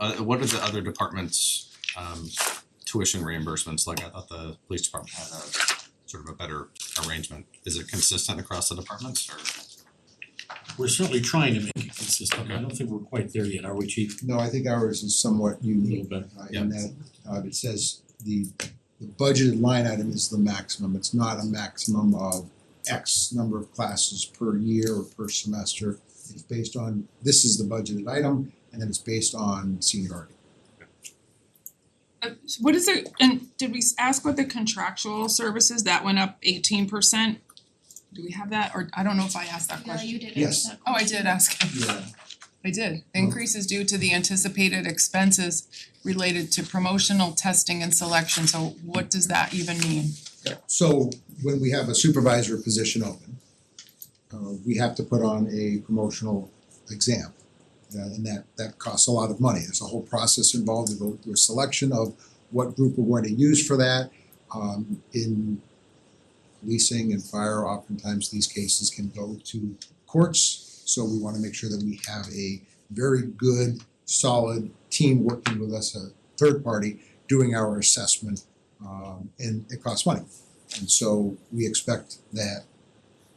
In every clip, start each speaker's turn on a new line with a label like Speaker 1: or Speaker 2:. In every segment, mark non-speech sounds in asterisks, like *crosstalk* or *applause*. Speaker 1: uh what are the other departments um tuition reimbursements, like I thought the police department had a sort of a better arrangement, is it consistent across the departments or?
Speaker 2: We're certainly trying to make it consistent, I don't think we're quite there yet, are we, chief?
Speaker 3: No, I think ours is somewhat
Speaker 2: A little
Speaker 3: unique,
Speaker 2: bit,
Speaker 3: uh, in that, uh, it says the the budgeted line item is the maximum, it's not a maximum of X number of classes per year or per semester. It's based on, this is the budgeted item, and then it's based on seniority.
Speaker 4: Uh, so what is it, and did we s- ask what the contractual services, that went up eighteen percent? Do we have that, or I don't know if I asked that
Speaker 5: No,
Speaker 4: question.
Speaker 5: you did
Speaker 3: Yes.
Speaker 5: ask that
Speaker 4: Oh, I
Speaker 5: question.
Speaker 4: did ask,
Speaker 3: Yeah.
Speaker 4: I did. Increase is due to the anticipated expenses related to promotional testing and selection, so what does that even mean?
Speaker 3: So when we have a supervisor position open, uh, we have to put on a promotional exam. Uh, and that that costs a lot of money. There's a whole process involved with the the selection of what group we're going to use for that. Um in leasing and fire, oftentimes these cases can go to courts. So we wanna make sure that we have a very good, solid team working with us, a third party, doing our assessment. Um and it costs money. And so we expect that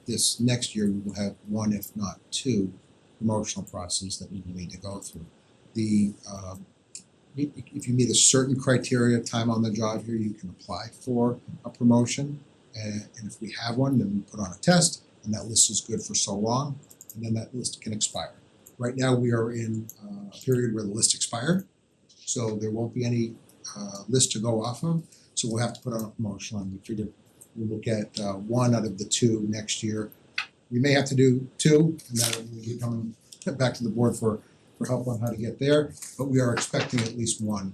Speaker 3: this next year we will have one, if not two, promotional process that we will need to go through. The um i- if you meet a certain criteria, time on the job here, you can apply for a promotion. And and if we have one, then we put on a test and that list is good for so long and then that list can expire. Right now, we are in uh, a period where the list expired, so there won't be any uh list to go off of. So we'll have to put on a promotion and we figure we'll look at uh one out of the two next year. We may have to do two and that will be coming back to the board for for help on how to get there, but we are expecting at least one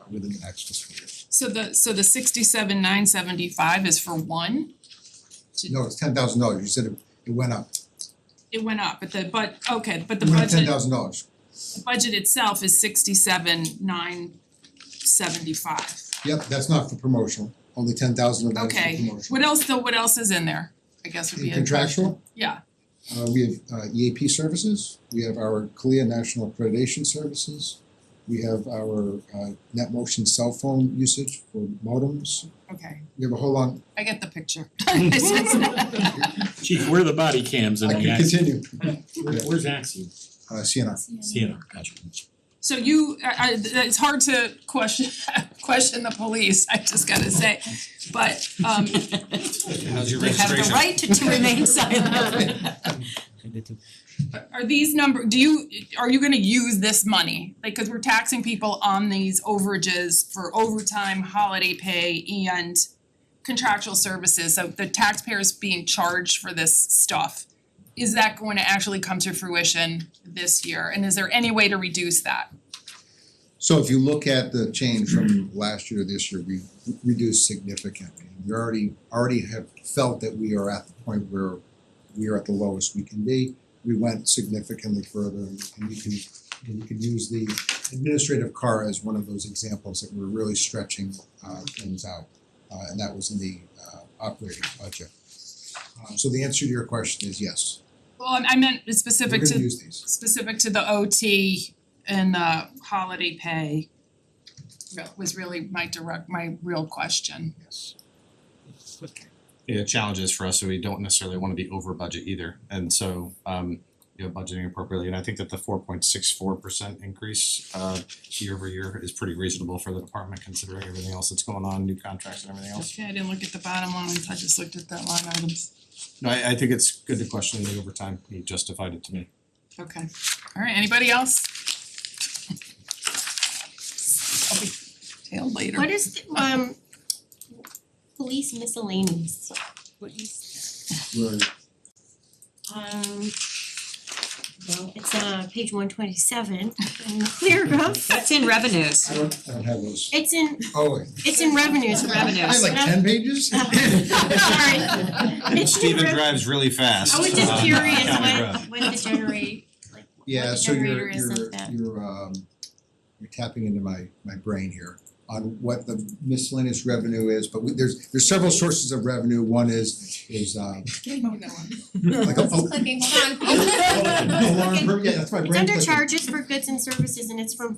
Speaker 3: uh, within the next fiscal year.
Speaker 4: So the, so the sixty-seven nine seventy-five is for one? To-
Speaker 3: No, it's ten thousand dollars, you said it it went up,
Speaker 4: It went up, but the, but, okay, but the
Speaker 3: it went up ten
Speaker 4: budget,
Speaker 3: thousand dollars,
Speaker 4: the budget itself is sixty-seven nine seventy-five.
Speaker 3: yep, that's not for promotional, only ten thousand of that is for
Speaker 4: Okay,
Speaker 3: promotional.
Speaker 4: what else though, what else is in there? I guess would
Speaker 3: In
Speaker 4: be a
Speaker 3: contractual?
Speaker 4: question. Yeah,
Speaker 3: Uh we have uh EAP services, we have our CLIA National Accreditation Services, we have our uh net motion cell phone usage for modems,
Speaker 4: okay,
Speaker 3: we have a whole long,
Speaker 4: I get the picture. *laughs* It's just-
Speaker 2: Chief, where are the body cams in
Speaker 3: I
Speaker 2: the
Speaker 3: can
Speaker 2: Axiom?
Speaker 3: continue,
Speaker 2: Where- Where's Axiom?
Speaker 3: uh CNR.
Speaker 2: Sienna, gotcha.
Speaker 4: So you, I I- it's hard to question *laughs* question the police, I just gotta say, but um
Speaker 1: How's your
Speaker 4: they have the
Speaker 1: registration?
Speaker 4: right to to remain silent. Are these number, do you, are you gonna use this money? Like, cause we're taxing people on these overages for overtime, holiday pay and contractual services, so the taxpayers being charged for this stuff. Is that going to actually come to fruition this year? And is there any way to reduce that?
Speaker 3: So if you look at the change from last year to this year, we reduced significantly. We already already have felt that we are at the point where we are at the lowest we can be. We went significantly further and you can and you could use the administrative car as one of those examples that we're really stretching uh things out. Uh and that was in the uh operating budget. Uh, so the answer to your question is yes,
Speaker 4: Well, I- I meant
Speaker 3: we're
Speaker 4: specific
Speaker 3: gonna
Speaker 4: to
Speaker 3: use these.
Speaker 4: specific to the OT and the holiday pay re- was really my direct, my real question.
Speaker 3: Yes.
Speaker 1: Yeah, challenges for us, so we don't necessarily wanna be over budget either, and so um you know, budgeting appropriately, and I think that the four point six four percent increase uh year over year is pretty reasonable for the department considering everything else that's going on, new contracts and everything else.
Speaker 4: Okay, I didn't look at the bottom lines, I just looked at that line items.
Speaker 1: No, I I think it's good to question the overtime, he justified it to me.
Speaker 4: Okay, alright, anybody else? I'll be tailed later.
Speaker 5: What is the um police miscellaneous, what is
Speaker 3: We're
Speaker 5: um well, it's uh page one twenty seven and clear up.
Speaker 6: That's in revenues.
Speaker 3: I don't I don't have those.
Speaker 5: It's in
Speaker 3: Oh wait.
Speaker 5: it's in revenues, revenues.
Speaker 3: I have like ten pages?
Speaker 5: *laughs* Sorry. It's in
Speaker 1: Steven
Speaker 5: rev-
Speaker 1: drives really fast.
Speaker 5: I was
Speaker 1: um,
Speaker 5: just curious
Speaker 1: County
Speaker 5: when
Speaker 1: Road.
Speaker 5: when to *laughs* generate like what
Speaker 3: Yeah,
Speaker 5: the
Speaker 3: so
Speaker 5: generator
Speaker 3: you're
Speaker 5: is like
Speaker 3: you're
Speaker 5: that.
Speaker 3: you're um you're tapping into my my brain here on what the miscellaneous revenue is, but we there's there's several sources of revenue. One is is uh like a
Speaker 5: *laughs*
Speaker 7: Just
Speaker 3: a-
Speaker 7: clicking, hold
Speaker 3: *laughs*
Speaker 7: on.
Speaker 3: alarm, per- yeah, that's my brain
Speaker 5: It's under
Speaker 3: clicking.
Speaker 5: charges for goods and services and it's from